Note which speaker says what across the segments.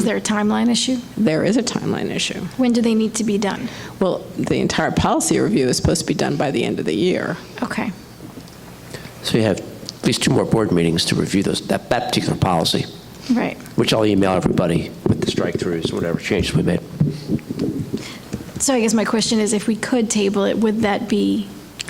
Speaker 1: Is there a timeline issue?
Speaker 2: There is a timeline issue.
Speaker 1: When do they need to be done?
Speaker 2: Well, the entire policy review is supposed to be done by the end of the year.
Speaker 1: Okay.
Speaker 3: So you have at least two more board meetings to review those, that, that particular policy,
Speaker 1: Right.
Speaker 3: which I'll email everybody with the strike-throughs, whatever changes we made.
Speaker 1: So I guess my question is, if we could table it, would that be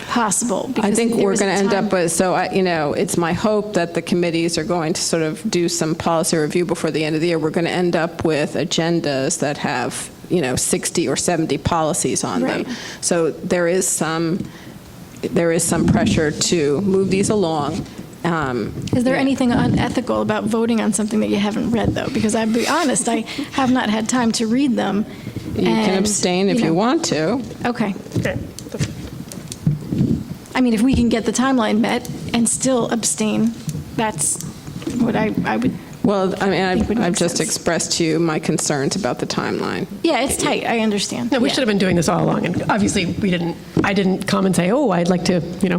Speaker 1: possible?
Speaker 2: I
Speaker 1: Because
Speaker 2: think
Speaker 1: there
Speaker 2: we're
Speaker 1: was a
Speaker 2: going to end
Speaker 1: time-
Speaker 2: up with, so, I- you know, it's my hope that the committees are going to sort of do some policy review before the end of the year. We're going to end up with agendas that have, you know, 60 or 70 policies on them.
Speaker 1: Right.
Speaker 2: So there is some, there is some pressure to move these along. um,
Speaker 1: Is there
Speaker 2: yeah.
Speaker 1: anything unethical about voting on something that you haven't read, though? Because I'd be honest, I have not had time to read them.
Speaker 2: You can abstain if you want to.
Speaker 1: Okay. I mean, if we can get the timeline met and still abstain, that's what I, I would,
Speaker 2: Well,
Speaker 1: think
Speaker 2: I mean,
Speaker 1: would
Speaker 2: I've-
Speaker 1: make
Speaker 2: I've just
Speaker 1: sense.
Speaker 2: expressed to you my concerns about the timeline.
Speaker 1: yeah, it's tight, I understand.
Speaker 4: No, we
Speaker 1: Yeah.
Speaker 4: should have been doing this all along, and obviously, we didn't, I didn't come and say, oh, I'd like to, you know,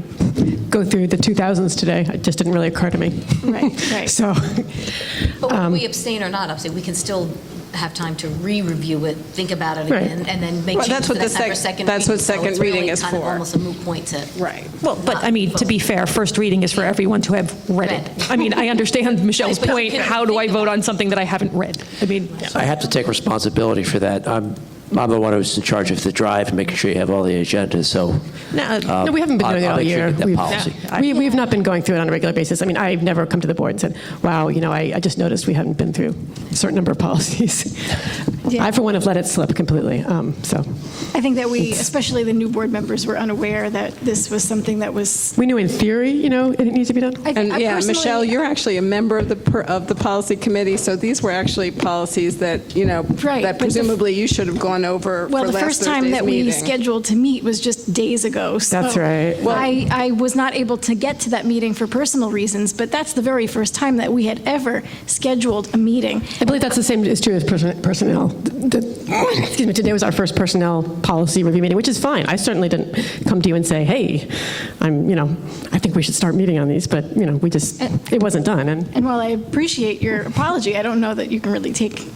Speaker 4: go through the 2000s today. It just didn't really occur to me.
Speaker 1: Right, right.
Speaker 4: So,
Speaker 5: But whether we abstain or not abstain, we can still have time to re-review it, think about it
Speaker 4: Right.
Speaker 5: again, and then make
Speaker 2: Well,
Speaker 5: changes
Speaker 2: that's
Speaker 5: to
Speaker 2: what the
Speaker 5: that time for
Speaker 2: sec-
Speaker 5: second reading.
Speaker 2: that's what second reading is
Speaker 5: So it's really kind
Speaker 2: for.
Speaker 5: of almost a moot point to.
Speaker 2: Right.
Speaker 6: Well, but I mean, to be fair, first reading is for everyone to have read it. I mean, I understand Michelle's
Speaker 5: But you
Speaker 6: point,
Speaker 5: can
Speaker 6: how do I
Speaker 5: think
Speaker 6: vote
Speaker 5: about
Speaker 6: on something that I haven't read? I mean,
Speaker 3: I have to take responsibility for that. I'm, I'm the one who's in charge of the drive and making sure you have all the agendas, so.
Speaker 4: no,
Speaker 3: uh,
Speaker 4: no, we haven't been
Speaker 3: I'll-
Speaker 4: doing it
Speaker 3: I'll
Speaker 4: all
Speaker 3: make sure you
Speaker 4: year.
Speaker 3: get that
Speaker 4: We've-
Speaker 3: policy.
Speaker 4: We, we've not been going through it on a regular basis. I mean, I've never come to the board and said, wow, you know, I, I just noticed we haven't been through a certain number of policies. I, for one, have let it slip completely, um, so.
Speaker 1: I think that we, especially the new board members, were unaware that this was something that was.
Speaker 4: We knew in theory, you know, it needs to be done.
Speaker 1: I think-
Speaker 2: And
Speaker 1: I
Speaker 2: yeah,
Speaker 1: personally-
Speaker 2: Michelle, you're actually a member of the, per- of the policy committee, so these were actually policies that, you know,
Speaker 1: Right,
Speaker 2: that
Speaker 1: but the-
Speaker 2: presumably you should have gone over for
Speaker 1: Well, the
Speaker 2: last
Speaker 1: first time that
Speaker 2: Thursday's
Speaker 1: we
Speaker 2: meeting.
Speaker 1: scheduled to meet was just days ago, so.
Speaker 4: That's right.
Speaker 1: I, I was not able to get to that meeting for personal reasons, but that's the very first time that we had ever scheduled a meeting.
Speaker 4: I believe that's the same is true as person- personnel. The- the- excuse me, today was our first personnel policy review meeting, which is fine. I certainly didn't come to you and say, hey, I'm, you know, I think we should start meeting on these, but, you know, we
Speaker 1: Uh,
Speaker 4: just, it wasn't done. And
Speaker 1: And while I appreciate your apology, I don't know that you can really take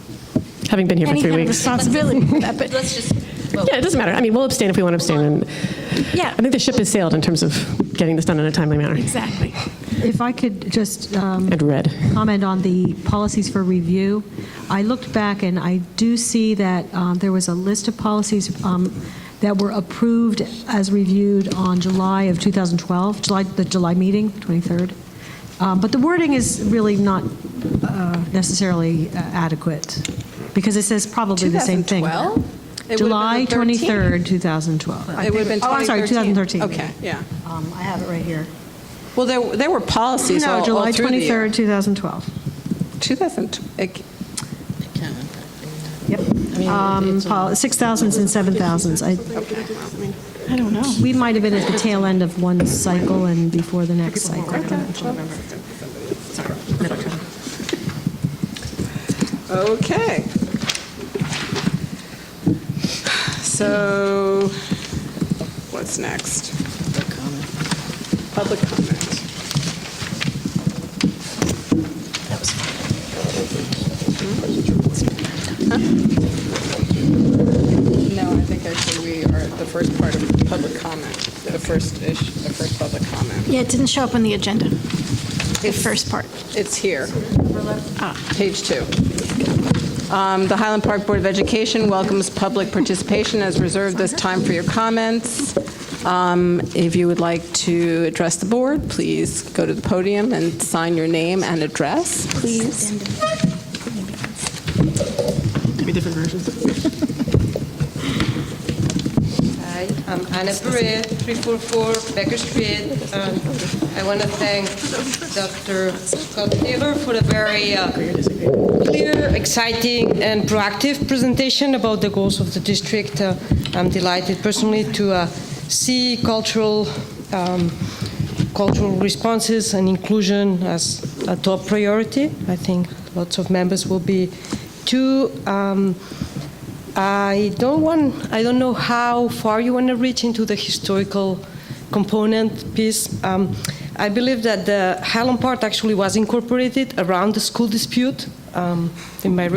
Speaker 4: having been here for
Speaker 1: any
Speaker 4: three
Speaker 1: kind of
Speaker 4: weeks.
Speaker 1: responsibility for that, but
Speaker 5: Let's just vote.
Speaker 4: Yeah, it doesn't matter. I mean, we'll abstain if we want to abstain. And
Speaker 1: yeah,
Speaker 4: I think the ship has sailed in terms of getting this done in a timely manner.
Speaker 1: exactly.
Speaker 7: If I could just um,
Speaker 4: And read.
Speaker 7: comment on the policies for review, I looked back and I do see that um, there was a list of policies um, that were approved as reviewed on July of 2012, July, the July meeting, 23rd. Um, But the wording is really not uh, necessarily adequate, because it says probably the same thing.
Speaker 2: 2012? It would've been the
Speaker 7: July
Speaker 2: 13th.
Speaker 7: 23rd, 2012.
Speaker 2: It would have been 2013.
Speaker 7: Oh, I'm sorry, 2013.
Speaker 2: Okay, yeah.
Speaker 7: Um, I have it right here.
Speaker 2: Well, there, there were policies all
Speaker 7: No,
Speaker 2: all
Speaker 7: July
Speaker 2: through the year.
Speaker 7: 23rd, 2012.
Speaker 2: 2000, it-
Speaker 7: Yep. Um, pol- 6,000s and 7,000s. I,
Speaker 1: I don't know.
Speaker 7: we might have been at the tail end of one cycle and before the next cycle. I don't know.
Speaker 2: okay. So, what's next? Public comment. No, I think actually we are at the first part of public comment, the first issue, the first public comment.
Speaker 1: Yeah, it didn't show up on the agenda, the first part.
Speaker 2: It's here. Page two. Um, The Highland Park Board of Education welcomes public participation as reserved this time for your comments. Um, If you would like to address the board, please go to the podium and sign your name and address, please.
Speaker 8: Hi, I'm Anna Perret, 344 Becker Street. and I want to thank Dr. Scott Taylor for a very uh, clear, exciting, and proactive presentation about the goals of the district. Uh, I'm delighted personally to uh, see cultural um, cultural responses and inclusion as a top priority. I think lots of members will be too. Um, I don't want. I don't know how far you want to reach into the historical component piece. Um, I believe that the Highland part actually was incorporated around the school dispute um, in my